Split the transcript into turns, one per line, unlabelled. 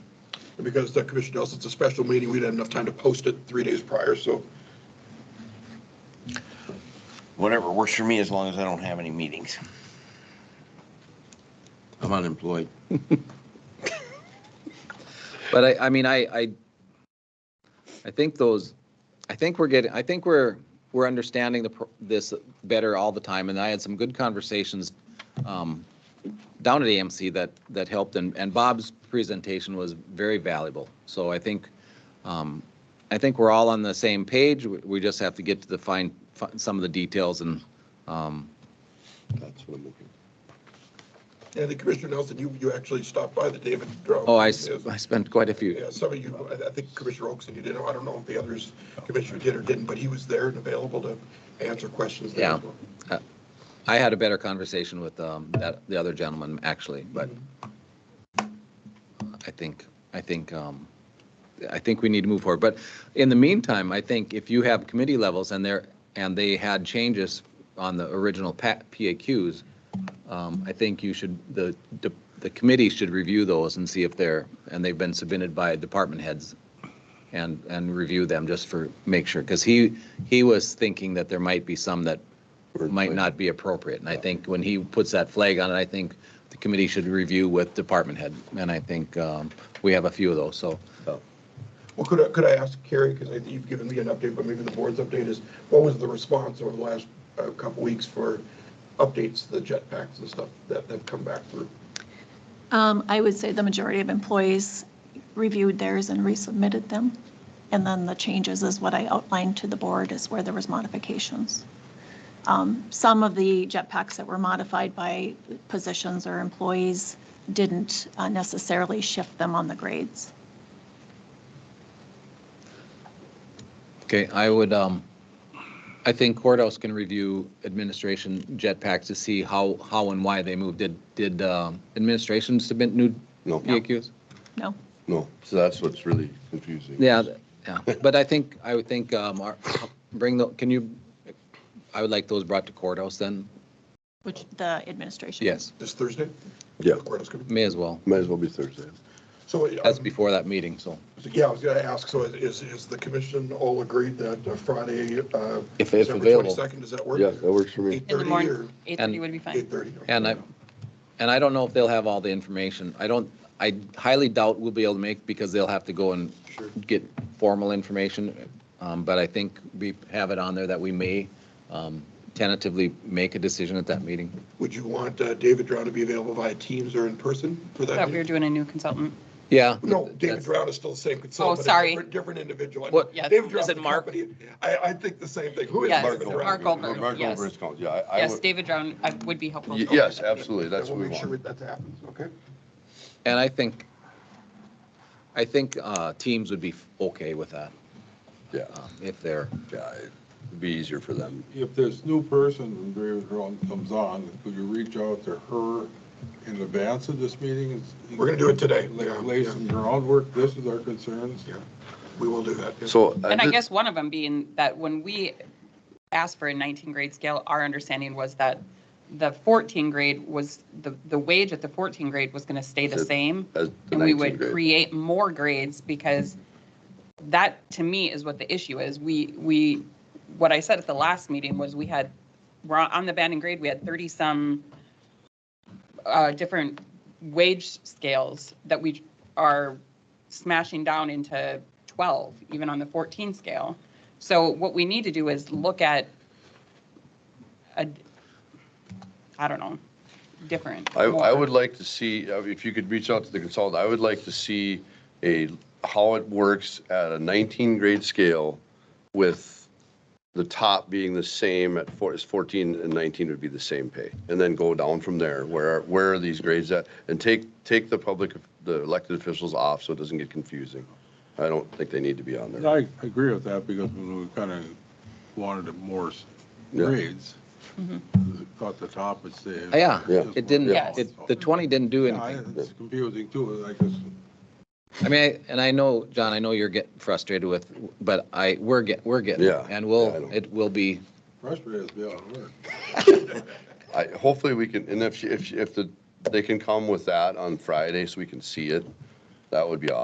And because the Commissioner knows it's a special meeting, we didn't have enough time to post it three days prior, so
Whatever works for me, as long as I don't have any meetings. I'm unemployed.
But I, I mean, I, I, I think those, I think we're getting, I think we're, we're understanding the, pro- this better all the time. And I had some good conversations um, down at AMC that, that helped. And, and Bob's presentation was very valuable. So I think, um, I think we're all on the same page. We- We just have to get to the fine, fi- some of the details and, um,
That's what I'm looking.
And the Commissioner Nelson, you, you actually stopped by the David Drone.
oh, I, s- I spent quite a few.
Yeah, some of you, I- I think Commissioner Oaks and you did, I don't know if the others, Commissioner did or didn't, but he was there and available to answer questions. there as
Yeah.
well.
I had a better conversation with um, that, the other gentleman, actually, but I think, I think, um, I think we need to move forward. But in the meantime, I think if you have committee levels and they're, and they had changes on the original pa- PAQs, um, I think you should, the, the- the committee should review those and see if they're, and they've been submitted by department heads and, and review them just for, make sure, because he, he was thinking that there might be some that might not be appropriate. And I think when he puts that flag on it, I think the committee should review with department head. And I think um, we have a few of those, so.
Well, could I, could I ask Carrie, because I think you've given me an update, but maybe the board's update is, what was the response over the last uh, couple weeks for updates to the jetpacks and stuff that have come back through?
Um, I would say the majority of employees reviewed theirs and resubmitted them. And then the changes is what I outlined to the board is where there was modifications. Um, Some of the jetpacks that were modified by positions or employees didn't uh, necessarily shift them on the grades.
Okay, I would, um, I think courthouse can review administration jetpacks to see how, how and why they moved. Did, did um, administration submit new
No,
PAQs?
No?
no. So that's what's really confusing.
Yeah, th- yeah, but I think, I would think, um, our- bring the, can you, I would like those brought to courthouse then?
Which the administration.
Yes,
This Thursday?
Yeah,
Courthouse committee?
may as well.
might as well be Thursday.
So,
That's
um,
before that meeting, so.
yeah, I was going to ask, so is, is the commission all agreed that uh, Friday, uh,
If- if
December
available.
22nd, does that work?
Yeah, that works for me.
In the
8:30 or
morning, 8:30
And-
would be fine.
8:30?
And I, and I don't know if they'll have all the information. I don't, I highly doubt we'll be able to make, because they'll have to go and
Sure.
get formal information. Um, But I think we have it on there that we may um, tentatively make a decision at that meeting.
Would you want uh, David Drown to be available via Teams or in person for that?
Thought we were
meeting?
doing a new consultant.
Yeah.
No, David
that's-
Drown is still the same consultant. but a
Oh, sorry.
different- Different individual. I know.
What-
Yeah,
David
is
Drown's
it
the
Mark?
company. I, I think the same thing. Who is
Yes,
Mark Drown?
Mark Goldberg,
Mark
yes.
Goldberg's called, yeah. I- I
Yes,
would-
David Drown I- would be helpful. Oh,
Y- Yes, absolutely,
And
that's what we
We'll make sure
want.
that that happens, okay?
And I think, I think uh, teams would be okay with that,
Yeah,
um, if they're,
yeah, it'd be easier for them.
If this new person from David Drone comes on, could you reach out to her in advance of this meeting?
We're gonna do it today. Yeah,
Like, Lay some groundwork, this is our concerns.
Yeah. We will do that. yeah.
So.
And I
did-
guess one of them being that when we asked for a 19 grade scale, our understanding was that the 14 grade was, the, the wage at the 14 grade was going to stay the
Said-
same.
as the
And we
19
would
grade.
create more grades because that, to me, is what the issue is. We, we, what I said at the last meeting was we had, we're on on the banding grade, we had 30-some uh, different wage scales that we are smashing down into 12, even on the 14 scale. So what we need to do is look at a, I don't know, different.
I, I
more.
would like to see, uh, if you could reach out to the consultant, I would like to see a, how it works at a 19 grade scale with the top being the same at four, is 14 and 19 would be the same pay. And then go down from there. Where, where are these grades at? And take, take the public, the elected officials off so it doesn't get confusing. I don't think they need to be on there.
I agree with that because when we kind of wanted more s-
Yeah.
grades, thought the top would stay.
yeah,
Yeah.
it didn't,
Yeah.
it- the 20 didn't do
Yeah, I-
anything.
It's confusing too, I guess.
I mean, I- and I know, John, I know you're getting frustrated with, but I, we're get, we're getting. there.
Yeah,
And
yeah, I know.
we'll, it will be,
Frustrated as well, it works.
I, hopefully we can, and if, she- if, she- if the, they can come with that on Friday so we can see it, that would be awesome.